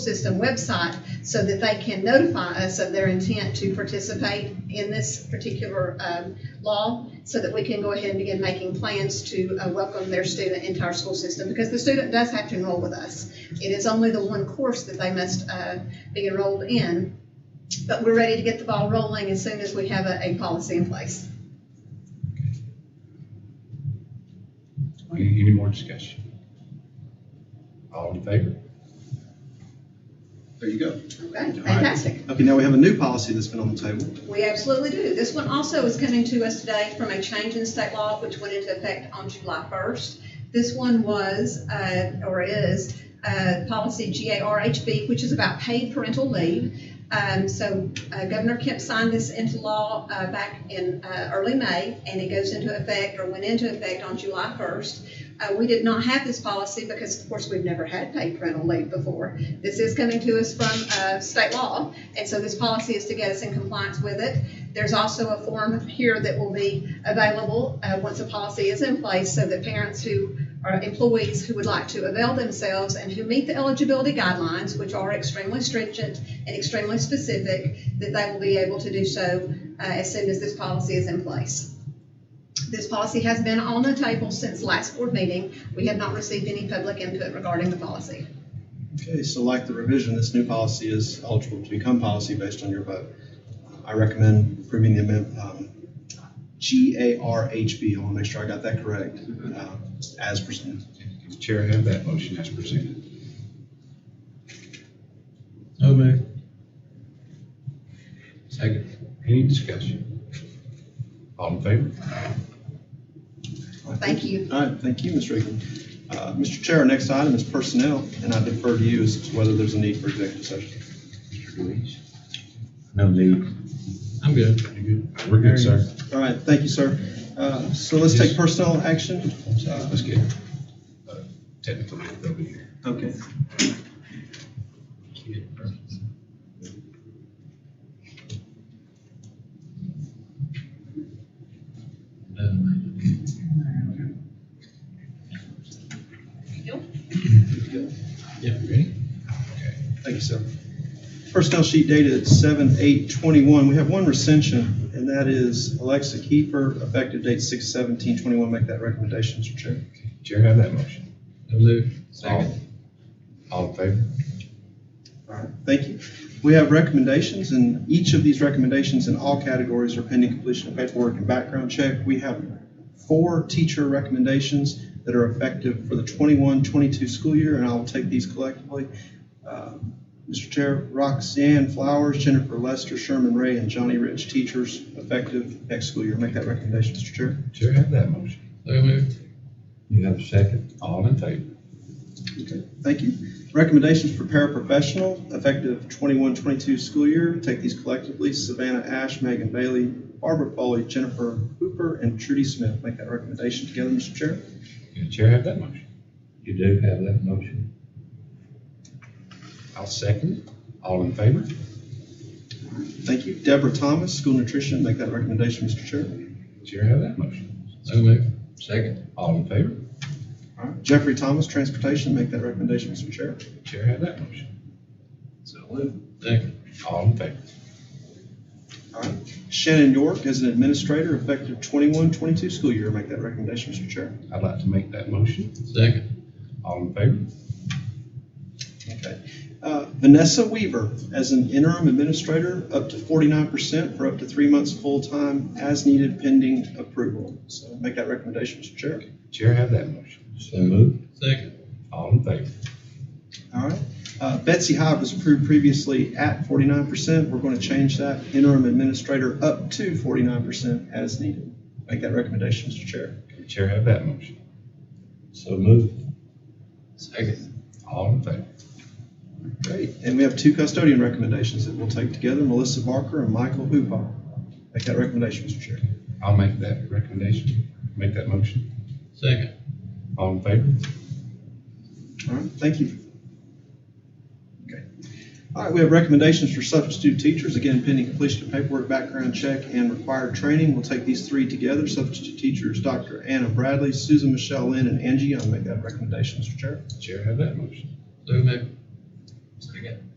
system website so that they can notify us of their intent to participate in this particular um, law so that we can go ahead and begin making plans to uh, welcome their student into our school system because the student does have to enroll with us. It is only the one course that they must uh, be enrolled in. But we're ready to get the ball rolling as soon as we have a, a policy in place. Any, any more discussion? All in favor? There you go. Okay, fantastic. Okay, now we have a new policy that's been on the table. We absolutely do. This one also is coming to us today from a change in state law which went into effect on July 1st. This one was, uh, or is, uh, policy GARHB, which is about paid parental leave. Um, So uh, Governor Kemp signed this into law uh, back in uh, early May, and it goes into effect, or went into effect on July 1st. Uh, We did not have this policy because, of course, we've never had paid parental leave before. This is coming to us from uh, state law. And so this policy is to get us in compliance with it. There's also a form here that will be available uh, once a policy is in place so that parents who are employees who would like to avail themselves and who meet the eligibility guidelines, which are extremely stringent and extremely specific, that they will be able to do so uh, as soon as this policy is in place. This policy has been on the table since last board meeting. We have not received any public input regarding the policy. Okay, so like the revision, this new policy is eligible to become policy based on your vote. I recommend approving the amendment, um, G-A-R-H-B, I want to make sure I got that correct, uh, as presented. Does the chair have that motion as presented? So moved. Second. Any discussion? All in favor? Thank you. All right, thank you, Ms. Regan. Uh, Mr. Chair, our next item is personnel, and I defer to you as to whether there's a need for executive session. Mr. Deweese? No need. I'm good. You good? We're good, sir. All right, thank you, sir. Uh, So let's take personnel action. Uh, Let's get uh, technical bit over here. Okay. Yep, ready? Thank you, sir. Personnel sheet dated seven eight twenty-one. We have one recension, and that is Alexa Kiefer, effective date six seventeen twenty-one. Make that recommendation, Mr. Chair. Chair have that motion. So moved. All all in favor? All right, thank you. We have recommendations, and each of these recommendations in all categories are pending completion of paperwork and background check. We have four teacher recommendations that are effective for the 21-22 school year, and I'll take these collectively. Uh, Mr. Chair, Roxanne Flowers, Jennifer Lester, Sherman Ray, and Johnny Rich, teachers effective next school year. Make that recommendation, Mr. Chair. Chair have that motion. So moved. You have a second? All in favor? Okay, thank you. Recommendations for paraprofessional, effective 21-22 school year. Take these collectively. Savannah Ash, Megan Bailey, Barbara Foley, Jennifer Hooper, and Trudy Smith. Make that recommendation together, Mr. Chair. Can the chair have that motion? You do have that motion. I'll second it. All in favor? Thank you. Deborah Thomas, school nutrition. Make that recommendation, Mr. Chair. Chair have that motion. So moved. Second. All in favor? All right. Jeffrey Thomas, transportation. Make that recommendation, Mr. Chair. Chair have that motion. So moved. Second. All in favor? All right. Shannon York as an administrator, effective 21-22 school year. Make that recommendation, Mr. Chair. I'd like to make that motion. Second. All in favor? Okay. Uh, Vanessa Weaver, as an interim administrator, up to forty-nine percent for up to three months full-time as needed pending approval. So make that recommendation, Mr. Chair. Chair have that motion. So moved. Second. All in favor? All right. Uh, Betsy Hyde was approved previously at forty-nine percent. We're going to change that interim administrator up to forty-nine percent as needed. Make that recommendation, Mr. Chair. Can the Chair have that motion. So moved. Second. All in favor? Great. And we have two custodian recommendations that we'll take together, Melissa Barker and Michael Hoopaw. Make that recommendation, Mr. Chair. I'll make that recommendation, make that motion. Second. All in favor? All right, thank you. Okay. All right, we have recommendations for substitute teachers, again pending completion of paperwork, background check, and required training. We'll take these three together. Substitute teachers, Dr. Anna Bradley, Susan Michelle Lynn, and Angie Young. Make that recommendation, Mr. Chair. Chair have that motion. So moved. Second.